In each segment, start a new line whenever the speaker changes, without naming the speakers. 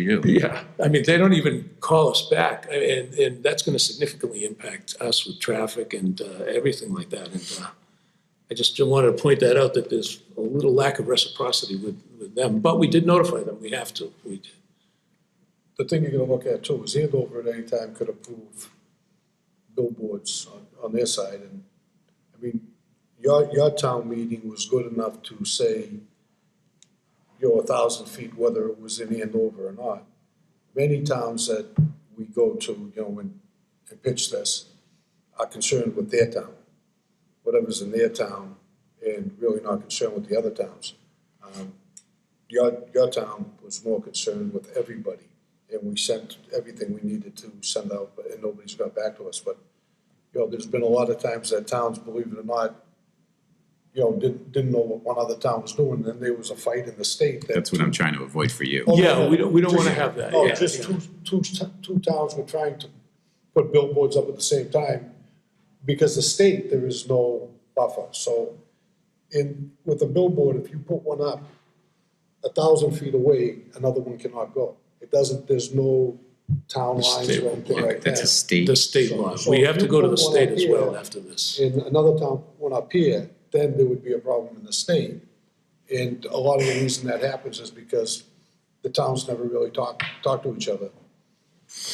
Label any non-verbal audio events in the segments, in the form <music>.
you.
Yeah, I mean, they don't even call us back, I- and, and that's gonna significantly impact us with traffic and, uh, everything like that, and, uh, I just wanted to point that out, that there's a little lack of reciprocity with, with them, but we did notify them, we have to, we did.
The thing you're gonna look at too is Andover at any time could approve billboards on, on their side and, I mean, your, your town meeting was good enough to say you're a thousand feet, whether it was in Andover or not. Many towns that we go to, you know, and, and pitch this are concerned with their town, whatever's in their town, and really not concerned with the other towns. Um, your, your town was more concerned with everybody, and we sent everything we needed to send out, but- and nobody's got back to us, but, you know, there's been a lot of times that towns, believe it or not, you know, didn't, didn't know what one other town was doing, then there was a fight in the state that.
That's what I'm trying to avoid for you.
Oh,
Yeah, we don't- we don't wanna
Just-
have that,
No,
yeah,
just
yeah.
two, two, t- two towns were trying to put billboards up at the same time, because the state, there is no buffer, so in, with a billboard, if you put one up a thousand feet away, another one cannot go. It doesn't, there's no town
The
lines
state
or
will
anything
block
like
That's a
that.
state.
The state law, we have to go to the state as well after this.
In another town, one up here, then there would be a problem in the state. And a lot of the reason that happens is because the towns never really talk, talk to each other.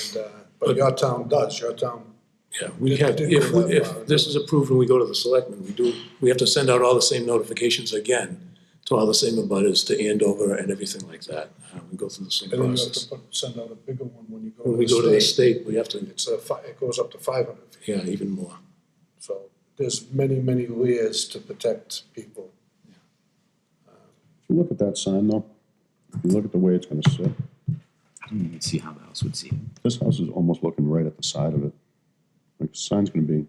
And, uh, but your town does, your town,
Yeah, we have, if, if this is approved and we go to the selectmen, we do, we have to send out all the same notifications again to all the same abutters, to Andover and everything like that, uh, we go through the same
and then you have
process.
to put- send out a bigger one when you go to the state.
When we go to the state, we have to,
It's a, fi- it goes up to five hundred feet.
yeah, even more.
So there's many, many layers to protect people.
If you Look at that sign though. If you Look at the way it's gonna sit.
I don't even see how the house would see it.
This house is almost looking right at the side of it. Like the sign's gonna be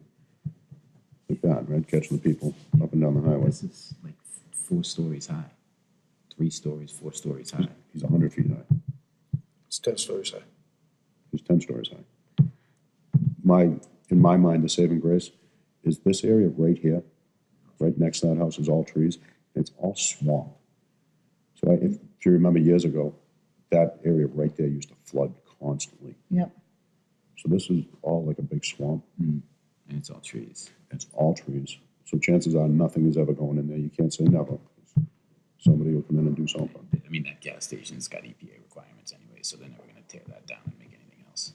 like that, right? Catching the people up and down the highway.
This is like four stories high, three stories, four stories high.
He's hundred feet high.
It's ten stories high.
He's ten stories high. My, in my mind, the saving grace is this area right here, right next to that house is all trees. and It's all swamp. So I, if, if you remember years ago, that area right there used to flood constantly.
Yep.
So this is all like a big swamp.
And it's all trees.
It's all trees. So chances are nothing is ever going in there. You can't say never. Somebody will come in and do something.
I mean, that gas station's got EPA requirements anyway, so they're never going to tear that down and make anything else.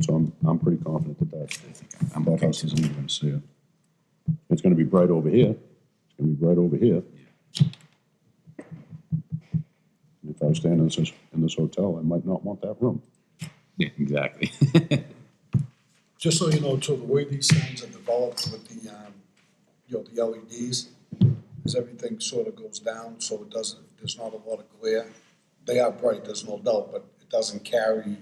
So I'm, I'm pretty confident that that,
I think I'm, I'm
that
okay.
house isn't even gonna see it. It's gonna be bright over here. It's gonna be bright over here. And If I was staying in this, in this hotel, I might not want that room.
Yeah, exactly.
Just so you know, too, the way these signs are developed with the, um, you know, the LEDs, is everything sort of goes down, so it doesn't, there's not a lot of glare. They are bright, there's no doubt, but it doesn't carry.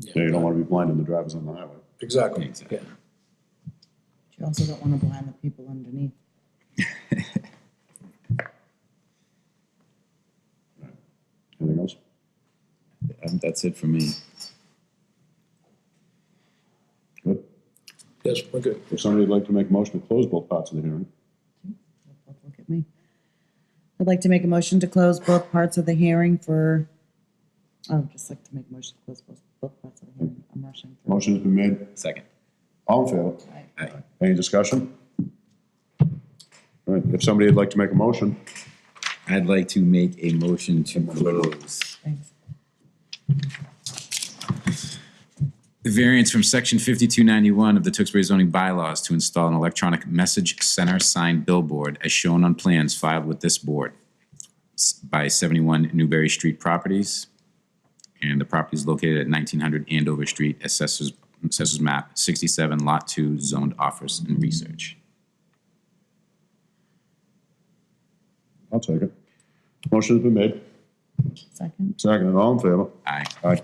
Yeah, you don't wanna be blinding the drivers on the highway.
Exactly.
exactly.
You also don't want to blind the people underneath.
Anything else?
Um, That's it for me.
Good.
Yes, we're good.
If somebody would like to make a motion to close both parts of the hearing,
Don't Look at me. I'd like to make a motion to close both parts of the hearing for, I would just like to make a motion to close both, both parts of the hearing. I'm rushing through.
motion has been made.
Second.
All in favor?
Aye.
Aye.
Any discussion? All right, if somebody would like to make a motion,
I'd like to make a motion to close
Thanks.
the variance from section fifty-two ninety-one of the Tewksbury zoning bylaws to install an electronic message center sign billboard as shown on plans filed with this board s- by seventy-one Newberry Street Properties. And the property is located at nineteen hundred Andover Street, assessors, assessors map sixty-seven, lot two, zoned office and research.
I'll take it. Motion's been made,
Second?
second, all in favor?
Aye.
Aye.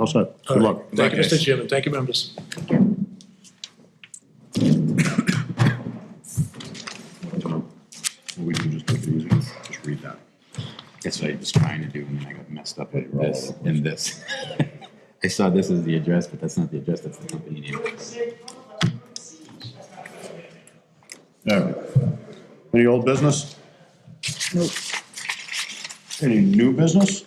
All set. Good luck.
Thank you, Mr. Chairman, thank you, members.
Tom, We can just take it easy, just read that.
That's what I was trying to do, and then I got messed up with
you're all
this
over the
and this. <laughs> I saw this as the address, but that's not the address, that's the company name.
All right. Any old business?
Nope.
Any new business?